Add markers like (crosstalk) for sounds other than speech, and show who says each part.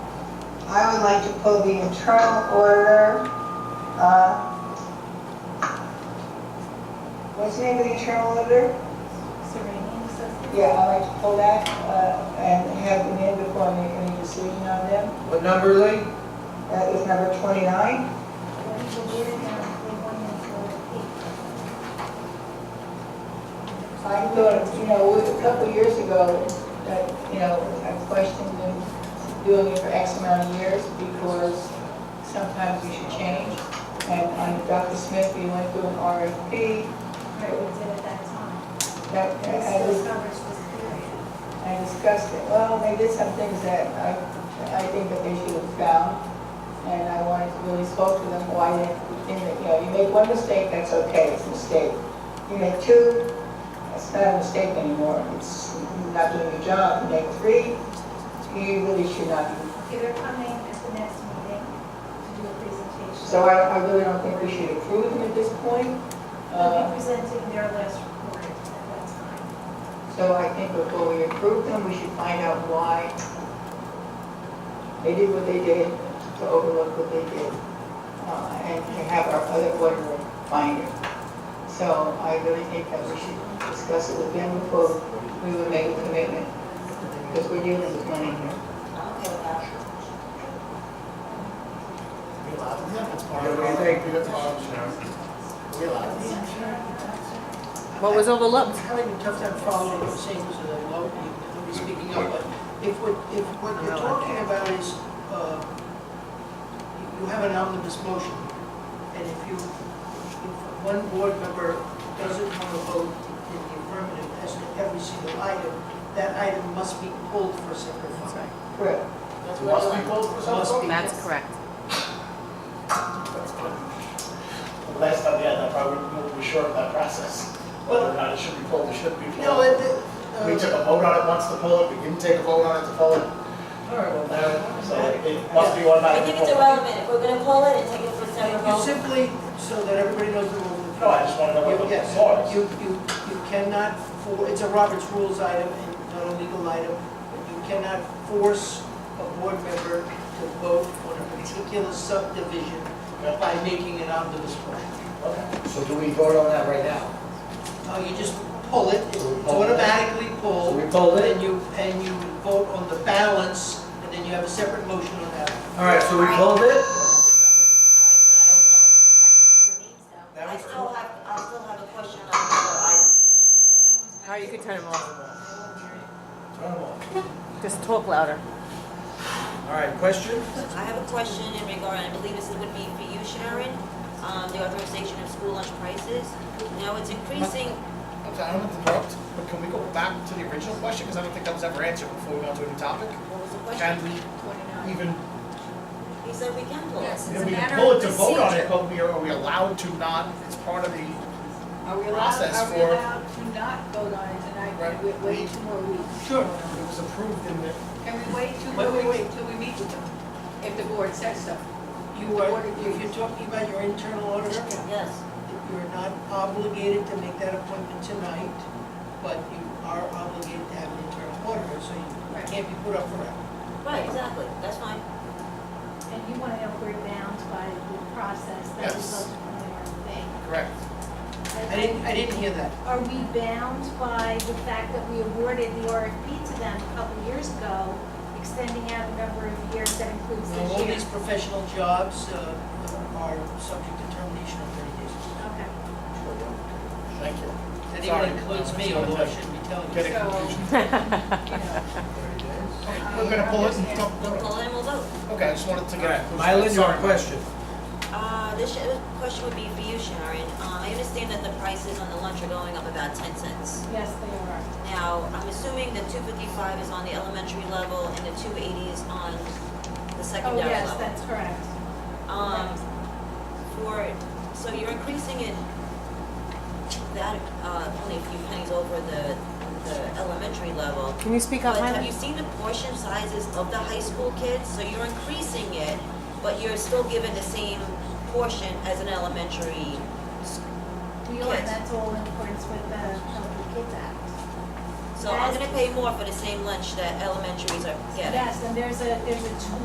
Speaker 1: I would like to pull the internal order, uh, what's the name of the internal order?
Speaker 2: Serene says,
Speaker 1: Yeah, I'd like to pull that, uh, and have them in before I make any decision on them.
Speaker 3: What number, Lee?
Speaker 1: That is number 29.
Speaker 2: "Well, we're in there, we want you to
Speaker 1: I thought, you know, a couple of years ago, that, you know, I questioned them doing it for X amount of years because sometimes you should change. And on Dr. Smith, we went through an RFP.
Speaker 2: Right, we did at that time.
Speaker 1: That,
Speaker 2: This
Speaker 1: I was
Speaker 2: this coverage was period.
Speaker 1: I discussed it, well, they did some things that I, I think that they should have found, and I wanted to really spoke to them, why they think that, you know, you make one mistake, that's okay, it's a mistake. You make two, it's not a mistake anymore, it's not doing your job, you make three, you really should not be.
Speaker 2: Okay, they're coming at the next meeting to do a presentation.
Speaker 1: So I, I really don't think we should approve them at this point.
Speaker 2: They'll
Speaker 1: Uh,
Speaker 2: be presenting their last report at that time.
Speaker 1: So I think before we approve them, we should find out why they did what they did, to overlook what they did, uh, and to have our other auditor find it. So I really think that we should discuss it with them before we would make a commitment, because we're dealing with money here.
Speaker 4: What was overlooked?
Speaker 5: having a tough time following what you're saying, because I know nobody's speaking up, but if what, if what you're talking about is, uh, you- you have an omnibus motion, and if you, if one board member doesn't want to vote in the affirmative as to every single item, that item must be pulled for separate vote.
Speaker 1: Correct.
Speaker 5: Must be pulled for separate
Speaker 4: That's correct.
Speaker 6: Last time, yeah, that probably we were short of that process. Whether or not it should be pulled, it shouldn't be
Speaker 5: No,
Speaker 6: pulled.
Speaker 5: it, uh,
Speaker 6: We took a vote on it once to pull it, we didn't take a vote on it to pull it,
Speaker 5: all right, well, that-
Speaker 6: so it- it must be automatically
Speaker 7: think it's
Speaker 6: pulled.
Speaker 7: irrelevant, if we're gonna pull it and take it for a separate
Speaker 5: You
Speaker 7: vote,
Speaker 5: simply, so that everybody knows the rules.
Speaker 6: No, I just want to know what the
Speaker 5: Yes,
Speaker 6: law is.
Speaker 5: you, you, you cannot, for- it's a Robert's Rules item and not a legal item, but you cannot force a board member to vote on a particular subdivision by making an omnibus motion.
Speaker 6: Okay.
Speaker 3: So do we vote on that right now?
Speaker 5: No, Oh, you just pull it, it's automatically
Speaker 3: So
Speaker 5: pulled,
Speaker 3: we pulled it?
Speaker 5: and you, and you vote on the balance, and then you have a separate motion on that.
Speaker 3: All right, so we pulled it?
Speaker 7: Right, but I still, I still have, I still have a question on the other item.
Speaker 4: All right, you can turn them off.
Speaker 3: Turn them off.
Speaker 4: Just talk louder. (laughs)
Speaker 3: All right, question?
Speaker 7: I have a question in regard, I believe this would be for you, Sharon, um, the authorization of school lunch prices. Now, it's increasing,
Speaker 6: I'm sorry, I don't want to interrupt, but can we go back to the original question? Because I don't think that was ever answered before we got to a new topic.
Speaker 7: what was the
Speaker 6: Can
Speaker 7: question?
Speaker 6: we even,
Speaker 7: He said we can pull it.
Speaker 2: Yes,
Speaker 6: I
Speaker 2: it's a
Speaker 6: mean, we
Speaker 2: matter
Speaker 6: can
Speaker 2: of.
Speaker 6: pull it to vote on
Speaker 2: procedure.
Speaker 6: it, but we are, are we allowed to not, it's part of the,
Speaker 8: Are we allowed,
Speaker 6: process
Speaker 8: are we
Speaker 6: for-
Speaker 8: allowed to not vote on it tonight?
Speaker 6: Right.
Speaker 8: Can we wait two more weeks?
Speaker 5: Sure.
Speaker 6: it was approved in the,
Speaker 8: Can we wait two
Speaker 5: Wait,
Speaker 8: more
Speaker 5: wait,
Speaker 8: weeks
Speaker 5: wait.
Speaker 8: till we meet with them? If the board says so.
Speaker 5: You are, if you're talking about your internal auditor,
Speaker 7: Yes,
Speaker 5: You're not obligated to make that appointment tonight, but you are obligated to have an internal auditor, so you can't be put up forever.
Speaker 7: right, exactly, that's fine.
Speaker 2: And you want to know if we're bound by the process that
Speaker 6: Yes.
Speaker 2: resulted from the wrong thing.
Speaker 6: correct.
Speaker 5: I didn't, I didn't hear that.
Speaker 2: Are we bound by the fact that we awarded the RFP to them a couple years ago, extending out a number of years that includes
Speaker 5: So
Speaker 2: this
Speaker 5: All
Speaker 2: year?
Speaker 5: these professional jobs uh, are subject to termination in thirty days.
Speaker 2: Okay.
Speaker 6: Thank you.
Speaker 5: That
Speaker 6: Sorry.
Speaker 5: even includes me, although I shouldn't be telling
Speaker 6: Get
Speaker 5: you.
Speaker 6: it
Speaker 8: So,
Speaker 6: confused.
Speaker 8: you know,
Speaker 6: We're gonna pull it and
Speaker 8: understand.
Speaker 6: talk
Speaker 7: We'll pull it and we'll vote.
Speaker 6: Okay, I just wanted to
Speaker 3: All
Speaker 6: get.
Speaker 3: right, Mylan, your
Speaker 6: Sorry.
Speaker 3: question?
Speaker 7: Uh, this sh- question would be for you, Sharon. Um, I understand that the prices on the lunch are going up about ten cents.
Speaker 2: Yes, they are.
Speaker 7: Now, I'm assuming the two fifty-five is on the elementary level and the two eighty is on the
Speaker 2: Oh,
Speaker 7: secondary level.
Speaker 2: yes, that's correct.
Speaker 7: Um, for, so you're increasing it that, uh, only a few pennies over the, the elementary level.
Speaker 4: Can you speak up,
Speaker 7: But have you
Speaker 4: Mylan?
Speaker 7: seen the portion sizes of the high school kids? So you're increasing it, but you're still given the same portion as an elementary.
Speaker 2: We are,
Speaker 7: Kids.
Speaker 2: that's all in accordance with the Healthy Kids Act.
Speaker 7: So I'm gonna pay more for the same lunch that elementaries are getting.
Speaker 2: Yes, and there's a, there's a tool